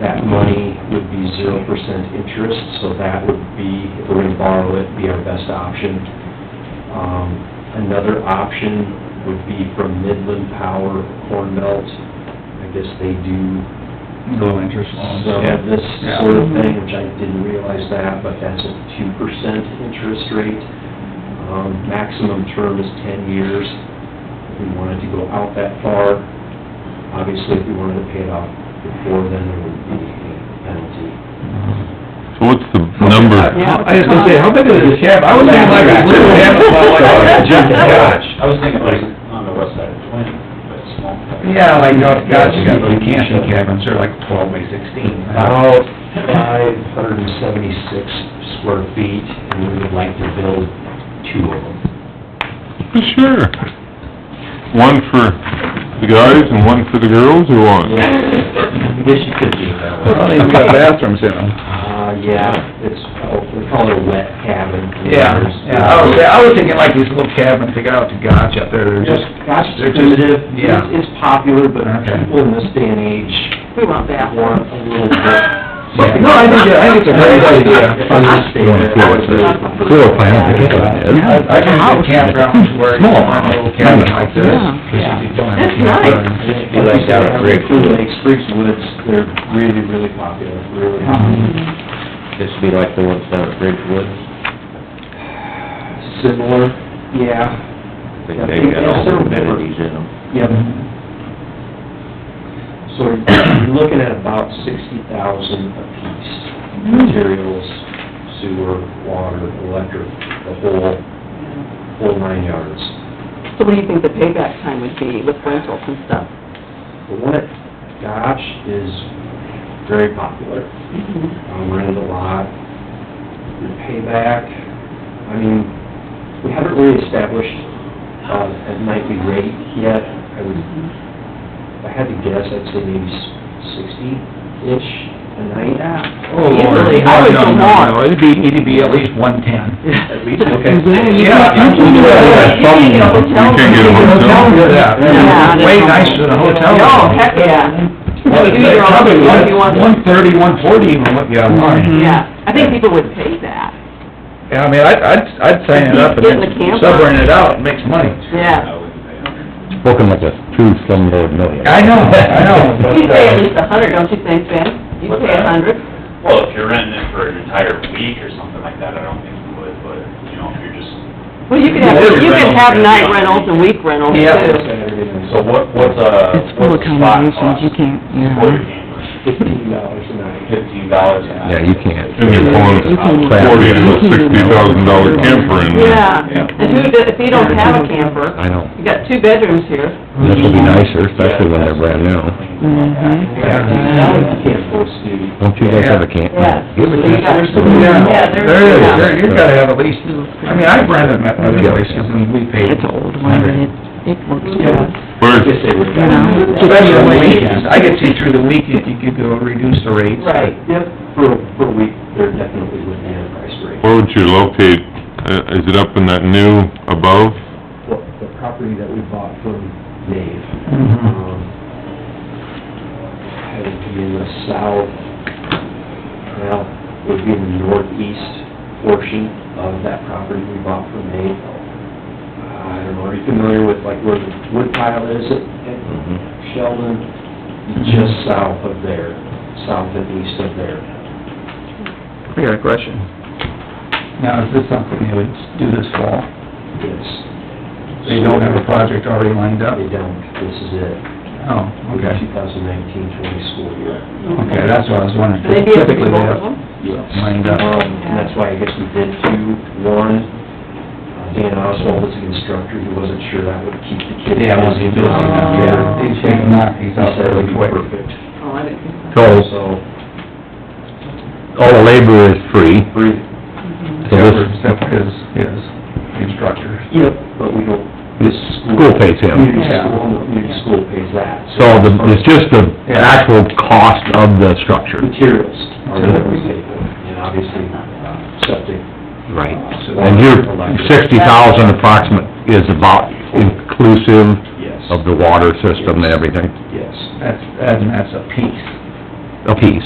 that money would be zero percent interest, so that would be, if we're gonna borrow it, be our best option. Um, another option would be from Midland Power Corn Belt. I guess they do Low interest loans. some yeah. of this Yeah. sort of thing, which I didn't realize that, but that's a two percent interest rate. Um, maximum term is ten years. If we wanted to go out that far, obviously if we wanted to pay it off before then, there would be a penalty. So what's the number? I was gonna say, how big is this cab? I was thinking like a little cab, about like a junk yacht. I was thinking like on the west side of Twin, but small. Yeah, like, oh, gosh, you got those camping cabins, they're like twelve by sixteen. About five hundred and seventy-six square feet, and we would like to build two of them. Sure. One for the guys and one for the girls, or what? I guess you could do it that way. Well, they've got bathrooms in them. Uh, yeah, it's, oh, we call it a wet cabin. Yeah, yeah, Oh, I was, I was thinking like these little cabins they got out to Gotch up there, they're just, Just, gosh, they're they're just, primitive. yeah. It's, it's popular, but Okay. people in this day and age We want that. want a little bit. Yeah. No, I think, I think it's a great idea. Fun to stay there. Yeah. Floor plan, I think it's- I I can see campgrounds where you want a little cabin like this. Yeah. You don't have a That's nice. campground. Be like down at Great Lakes, Freaks Woods, they're really, really popular, really. Mm-hmm. This would be like the ones down at Ridgewood, Similar, yeah, they, they got all the amenities in them. yep. Oh, So you're looking at about sixty thousand apiece, materials, sewer, water, electric, the whole, whole nine yards. So what do you think the payback time would be with rentals and stuff? The one at Gosh is very popular, um, rented a lot, the payback, I mean, we haven't really established, uh, a nightly rate yet. I would, if I had to guess, I'd say maybe sixty-ish a night. Oh, Lord. Easily, I would No, go no, more. no, It'd be, it'd be at least one-ten. At least, Okay. Yeah, you can do that. You can get a hotel. You can get a hotel. Yeah, Yeah. Way nicer than a hotel. Oh, heck, yeah. Well, You do your own probably thing if you want. Mm-hmm. One-thirty, one-forty even what you have online. Yeah, I think people would pay that, Yeah, I mean, I'd, I'd, I'd sign it up and Get in the then camper. subrent it out, it makes money. yeah. Spoken like a true slumlord millionaire. I know, I know, but, You pay at uh, least a hundred, don't you think, Ben? You What's pay a that? hundred? Well, if you're renting it for an entire week or something like that, I don't think you would, but, you know, if you're just, Well, you could have, Yeah, you could rentals, have yeah. night rentals and week rentals Yeah. too. so what, what's uh, a, It's full what's a of spot combinations, you cost? can't, For yeah. your camper, fifteen dollars a night. fifteen dollars an hour. Yeah, you can't. And you're You pulling can- forty to a sixty thousand dollar camper in there. Yeah, and who, do- if you don't have a camper, I know. you got two bedrooms here. This will be nicer, especially when they're brand new. Mhm. Now you can't force duty. Don't you guys have a camp? Yeah. Give a camp. There's some- yeah, Yeah, there there's- is, yeah. there, you've gotta have at least, I mean, I've rented my other Yeah. places and we paid. It's an old one, but it, it works good. I Where's, guess they would. You know? Especially on weekends, I could see through the weekend, you could go reduce the rates. Right, yep, for, for a week, there definitely would be a price break. where would you locate, uh, is it up in that new above? Well, the property that we bought from Dave, Mhm. um, had to be in the south, well, it would be in the northeast portion of that property we bought from Dave. I don't know, are you familiar with like where the wood pile is at at Mm-hmm. Mhm. Sheldon? Just south of there, south and east of there. I got a question. Now, is this something they would do this fall? Yes, They don't have a project already lined up? they don't, this is it. Oh, okay. 2019-20 school year. Okay, that's what I was wondering. Maybe it's Typically, they both have of them? Yes. lined Um, up. and that's why I guess we did two, one, uh, Dan Oswald was the instructor, he wasn't sure that would keep the kids. Yeah, once you do it, yeah, Oh. they shake them out, he's He out said it would really be quick. perfect. Oh, I didn't think So, So, all the labor is free, free, so this, Except for his, his instructor. yep, but we don't, this school pays him. community Yeah. school, the community school pays that. So the, it's just the actual cost of the structure. Materials are what we pay for, and obviously, uh, septic. Right. So- And your sixty thousand approximate is about inclusive Yes. of the water system and everything, Yes. That's, and that's a piece. apiece.